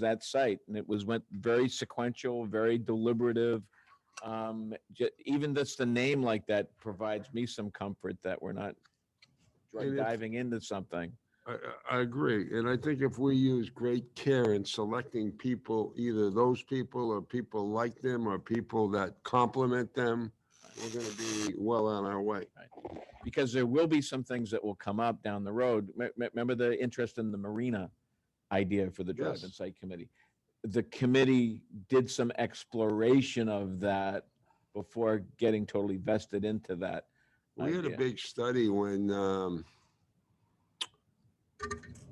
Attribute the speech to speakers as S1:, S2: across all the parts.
S1: that site. And it was, went very sequential, very deliberative. Um, ju- even just the name like that provides me some comfort that we're not
S2: And it's-
S1: diving into something.
S2: I, I- I agree, and I think if we use great care in selecting people, either those people or people like them or people that complement them, we're gonna be well on our way.
S1: because there will be some things that will come up down the road. Me- me- Remember the interest in the marina idea for the drive-in
S2: Yes.
S1: site committee? The committee did some exploration of that before getting totally vested into that.
S2: We had a
S1: idea.
S2: big study when, um,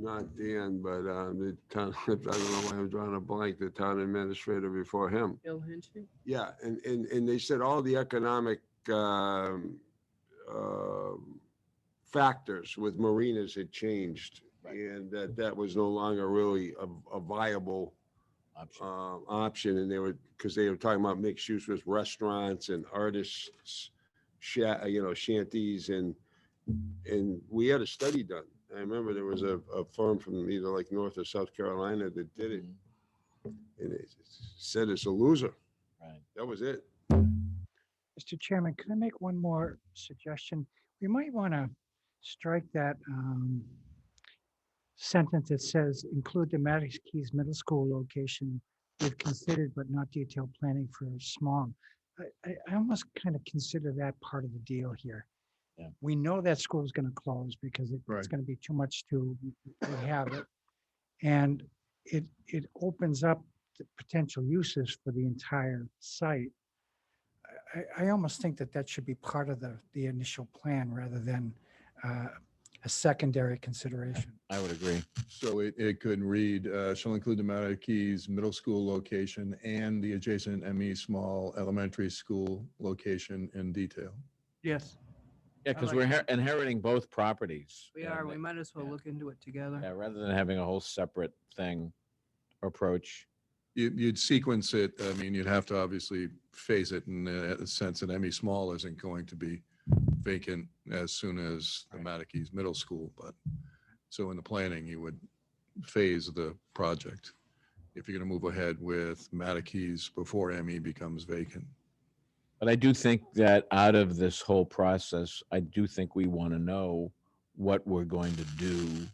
S2: not Dan, but, um, the town, I don't know why I'm drawing a blank, the town administrator before him.
S3: Bill Hinchey?
S2: Yeah, and, and, and they said all the economic, um, um, factors with marinas had changed.
S1: Right.
S2: And that, that was no longer really a, a viable,
S1: Option.
S2: um, option. And they were, because they were talking about mixed use with restaurants and artists, sha, you know, shanties and, and we had a study done. I remember there was a, a firm from either like North or South Carolina that did it
S1: Mhm,
S2: and it said it's a loser.
S1: Right.
S2: That was it.
S4: Mr. Chairman, could I make one more suggestion? We might want to strike that um, sentence that says include the Maddox Keys Middle School location if considered but not detailed planning for small. I, I, I almost kind of consider that part of the deal here.
S1: Yeah.
S4: We know that school is going to close because it- it's
S2: Right.
S4: going to be too much to inhabit. And it, it opens up the potential uses for the entire site. I- I, I almost think that that should be part of the, the initial plan rather than uh, a secondary consideration.
S1: I would agree.
S5: So it, it could read, uh, shall include the Mattock Keys Middle School location and the adjacent ME Small Elementary School location in detail.
S4: Yes.
S1: Yeah,
S3: I
S1: because
S3: like
S1: we're
S3: that.
S1: inher- inheriting both properties.
S3: We
S1: and
S3: are, we
S1: it-
S3: might as well
S1: yeah.
S3: look into it together.
S1: yeah, Rather than having a whole separate thing approach.
S5: You, you'd sequence it, I mean, you'd have to obviously phase it in the sense that ME Small isn't going to be vacant as soon as the
S1: Right.
S5: Mattock Keys Middle School, but, so in the planning, you would phase the project if you're going to move ahead with Mattock Keys before ME becomes vacant.
S1: But I do think that out of this whole process, I do think we want to know what we're going to do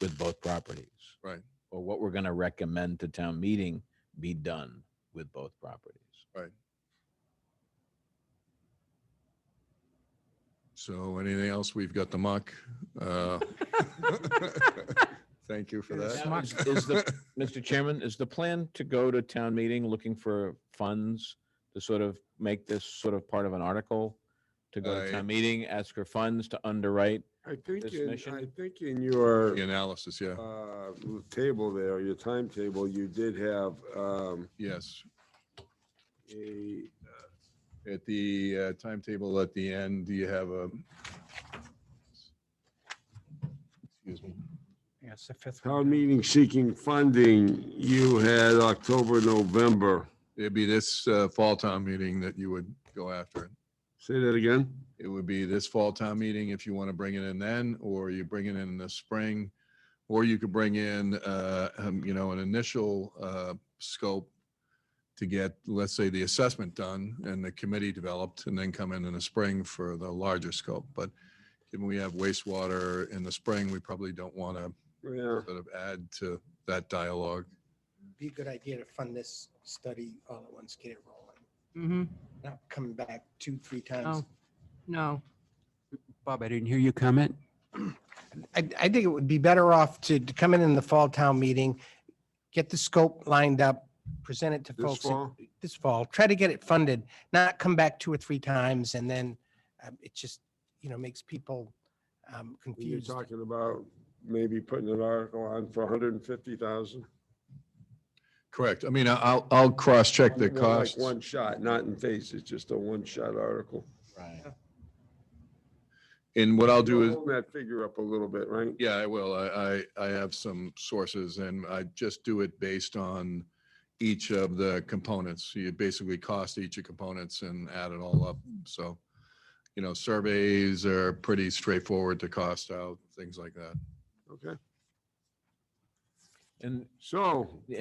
S1: with both properties.
S5: Right.
S1: Or what we're going to recommend to town meeting be done with both properties.
S5: So anything else? We've got the muck. uh, Thank you for
S4: Yeah,
S5: that.
S1: Now, is- is the- Mr. Chairman, is the plan to go to town meeting looking for funds to sort of make this sort of part of an article? To go to
S5: I-
S1: town meeting, ask for funds to underwrite?
S2: I think,
S1: This
S2: in-
S1: mission?
S2: I think in your
S5: The analysis, yeah,
S2: uh, table there, your timetable, you did have um,
S5: yes.
S2: a,
S5: At the uh, timetable at the end, do you have a? Excuse me.
S4: Yes, the fifth. one.
S2: town meeting seeking funding. You had October, November.
S5: It'd be this uh, fall town meeting that you would go after. it.
S2: Say that again?
S5: It would be this fall town meeting if you want to bring it in then, or you bring it in the spring. Or you could bring in, uh, um, you know, an initial, uh, scope to get, let's say, the assessment done and the committee developed and then come in in the spring for the larger scope. But given we have wastewater in the spring, we probably don't want to
S2: Yeah.
S5: sort of add to that dialogue.
S6: be a good idea to fund this study all at once, get it rolling,
S3: hmm
S6: not coming back two, three times.
S3: no, Oh, no.
S7: Bob, I didn't hear you comment.
S6: I, I think it would be better off to to come in in the fall town meeting, get the scope lined up, present it to
S2: This
S6: folks in-
S2: fall?
S6: this fall, try to get it funded, not come back two or three times and then um, it just, you know, makes people um,
S2: You're
S6: confused.
S2: talking about maybe putting an article on for 150,000?
S5: Correct. I mean, I- I'll, I'll cross-check the
S2: Like
S5: costs.
S2: One shot, not in phase, it's just a one-shot article.
S1: Right.
S5: And what I'll do is.
S2: Hold that figure up a little bit, right?
S5: Yeah, I will. I, I, I have some sources and I just do it based on each of the components. So You basically cost each of components and add it all up. So, you know, surveys are pretty straightforward to cost out, things like that.
S2: Okay,
S1: And
S2: so.
S1: Yeah,